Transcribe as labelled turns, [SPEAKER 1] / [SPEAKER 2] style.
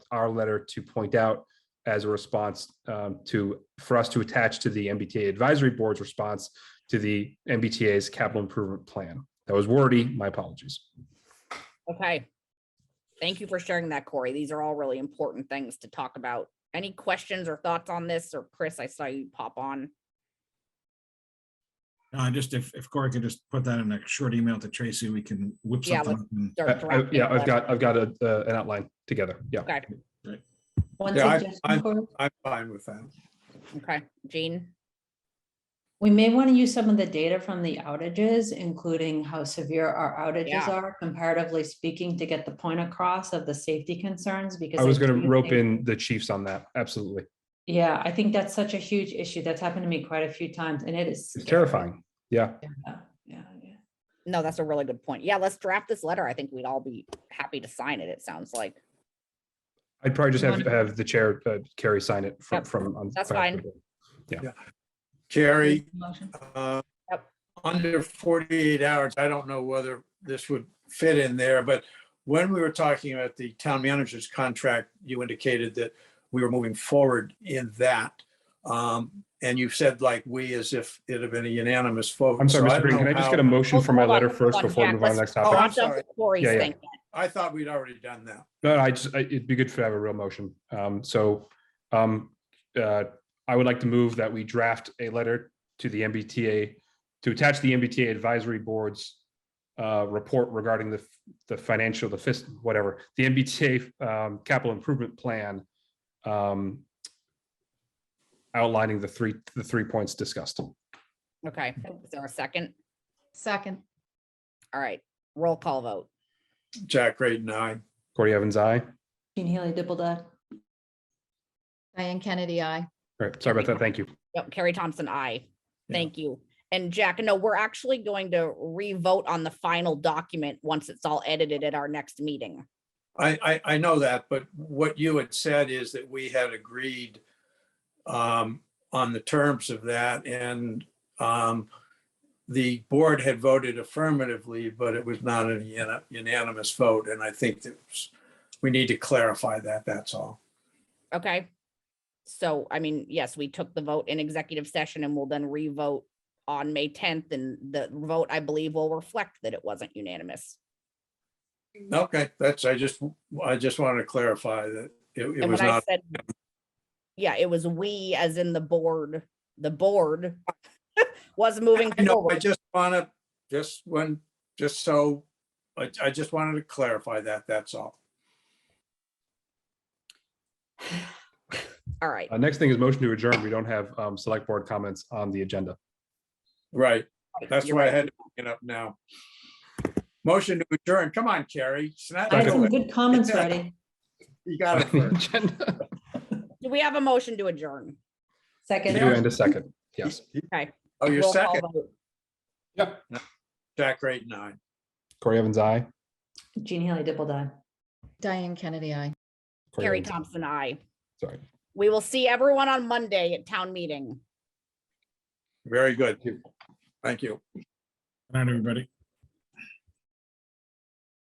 [SPEAKER 1] our letter to point out as a response um, to, for us to attach to the MBTA Advisory Board's response to the MBTA's capital improvement plan. That was wordy, my apologies.
[SPEAKER 2] Okay. Thank you for sharing that, Corey. These are all really important things to talk about. Any questions or thoughts on this? Or Chris, I saw you pop on.
[SPEAKER 3] Uh, just if, if Corey could just put that in a short email to Tracy, we can whip
[SPEAKER 2] Yeah,
[SPEAKER 3] something. up and-
[SPEAKER 1] Uh, I-
[SPEAKER 2] They're
[SPEAKER 1] I-
[SPEAKER 2] drafting
[SPEAKER 1] Yeah,
[SPEAKER 2] a
[SPEAKER 1] I've
[SPEAKER 2] letter.
[SPEAKER 1] got, I've got a, uh, an outline together. Yeah.
[SPEAKER 4] One
[SPEAKER 5] Yeah, I- I-
[SPEAKER 4] suggestion, Cor-
[SPEAKER 5] I'm fine with that.
[SPEAKER 2] Okay, Jean,
[SPEAKER 4] we may want to use some of the data from the outages, including how severe our outages
[SPEAKER 2] Yeah.
[SPEAKER 4] are comparatively speaking, to get the point across of the safety concerns because.
[SPEAKER 1] I was going
[SPEAKER 4] do
[SPEAKER 1] to rope
[SPEAKER 4] think-
[SPEAKER 1] in the chiefs on that. Absolutely.
[SPEAKER 4] Yeah, I think that's such a huge issue. That's happened to me quite a few times and it is.
[SPEAKER 1] It's
[SPEAKER 4] scary.
[SPEAKER 1] terrifying. Yeah.
[SPEAKER 4] Yeah, yeah, yeah.
[SPEAKER 2] no, that's a really good point. Yeah, let's draft this letter. I think we'd all be happy to sign it, it sounds like.
[SPEAKER 1] I'd probably just
[SPEAKER 4] You
[SPEAKER 1] have, have the chair, uh, Carrie sign it from,
[SPEAKER 2] Yep,
[SPEAKER 1] from. on-
[SPEAKER 2] that's fine.
[SPEAKER 5] Jerry,
[SPEAKER 4] Motion.
[SPEAKER 5] uh,
[SPEAKER 2] Yep.
[SPEAKER 5] under 48 hours, I don't know whether this would fit in there, but when we were talking about the town manager's contract, you indicated that we were moving forward in that. Um, And you said like we as if it had been a unanimous vote.
[SPEAKER 1] I'm sorry,
[SPEAKER 5] So I
[SPEAKER 1] Mr. Green,
[SPEAKER 5] don't
[SPEAKER 1] can I just
[SPEAKER 5] know
[SPEAKER 1] get a
[SPEAKER 5] how-
[SPEAKER 1] motion for my
[SPEAKER 2] Hold on,
[SPEAKER 1] letter
[SPEAKER 2] hold
[SPEAKER 1] first
[SPEAKER 2] on,
[SPEAKER 1] before we
[SPEAKER 2] Jack.
[SPEAKER 1] move on to the next
[SPEAKER 2] Let's
[SPEAKER 5] Oh,
[SPEAKER 1] topic?
[SPEAKER 5] I'm
[SPEAKER 2] watch out
[SPEAKER 5] sorry.
[SPEAKER 2] for Corey's
[SPEAKER 1] Yeah, yeah.
[SPEAKER 2] thing.
[SPEAKER 5] I thought we'd already done that.
[SPEAKER 1] No, I just, I- it'd be good to have a real motion. Um, so, um, uh, I would like to move that we draft a letter to the MBTA, to attach the MBTA advisory board's uh, report regarding the, the financial, the fist, whatever, the MBTA, um, capital improvement plan, um, outlining the three, the three points discussed.
[SPEAKER 2] Okay, is there a second?
[SPEAKER 6] Second,
[SPEAKER 2] All right, roll call vote.
[SPEAKER 5] Jack Graydon, aye.
[SPEAKER 1] Corey Evans, aye. All
[SPEAKER 4] Jean Haley Dipple.
[SPEAKER 6] Diane Kennedy, I.
[SPEAKER 1] right, sorry about that. Thank you.
[SPEAKER 2] Yep, Carrie Thompson, I.
[SPEAKER 5] Yeah.
[SPEAKER 2] Thank you. And Jack, no, we're actually going to re-vote on the final document once it's all edited at our next meeting.
[SPEAKER 5] I, I, I know that, but what you had said is that we had agreed um, on the terms of that and um, the board had voted affirmatively, but it was not a uni- unanimous vote. And I think that was- we need to clarify that, that's all.
[SPEAKER 2] Okay. So, I mean, yes, we took the vote in executive session and we'll then re-vote on May tenth and the vote, I believe, will reflect that it wasn't unanimous.
[SPEAKER 5] Okay, that's, I just, I just wanted to clarify that it- it
[SPEAKER 2] And
[SPEAKER 5] was
[SPEAKER 2] when I
[SPEAKER 5] not,
[SPEAKER 2] said, yeah, it was we as in the board, the board was moving
[SPEAKER 5] I know, I
[SPEAKER 2] forward.
[SPEAKER 5] just want to, just when, just so, I, I just wanted to clarify that, that's all.
[SPEAKER 2] All right.
[SPEAKER 1] Uh, next thing is motion to adjourn. We don't have, um, select board comments on the agenda.
[SPEAKER 5] Right. That's
[SPEAKER 2] you're
[SPEAKER 5] why I
[SPEAKER 2] right.
[SPEAKER 5] had to bring it up now. Motion to adjourn. Come on, Carrie. Snap
[SPEAKER 4] I had
[SPEAKER 5] to
[SPEAKER 4] some
[SPEAKER 5] it.
[SPEAKER 4] good comments
[SPEAKER 5] Yeah.
[SPEAKER 4] ready.
[SPEAKER 5] You got it first.
[SPEAKER 1] Agenda.
[SPEAKER 2] Do we have a motion to adjourn?
[SPEAKER 1] You
[SPEAKER 4] Second.
[SPEAKER 1] and a second. Yes.
[SPEAKER 5] Oh,
[SPEAKER 2] Roll
[SPEAKER 5] your
[SPEAKER 2] call
[SPEAKER 5] second,
[SPEAKER 2] vote.
[SPEAKER 1] Yep.
[SPEAKER 5] Jack Grade nine.
[SPEAKER 1] Corey Evans, I.
[SPEAKER 4] Jean Haley Dipple.
[SPEAKER 6] Diane Kennedy, I.
[SPEAKER 2] Carrie Thompson, I.
[SPEAKER 1] Sorry.
[SPEAKER 2] We will see everyone on Monday at town meeting.
[SPEAKER 5] Very good. Thank you.
[SPEAKER 3] Good night, everybody.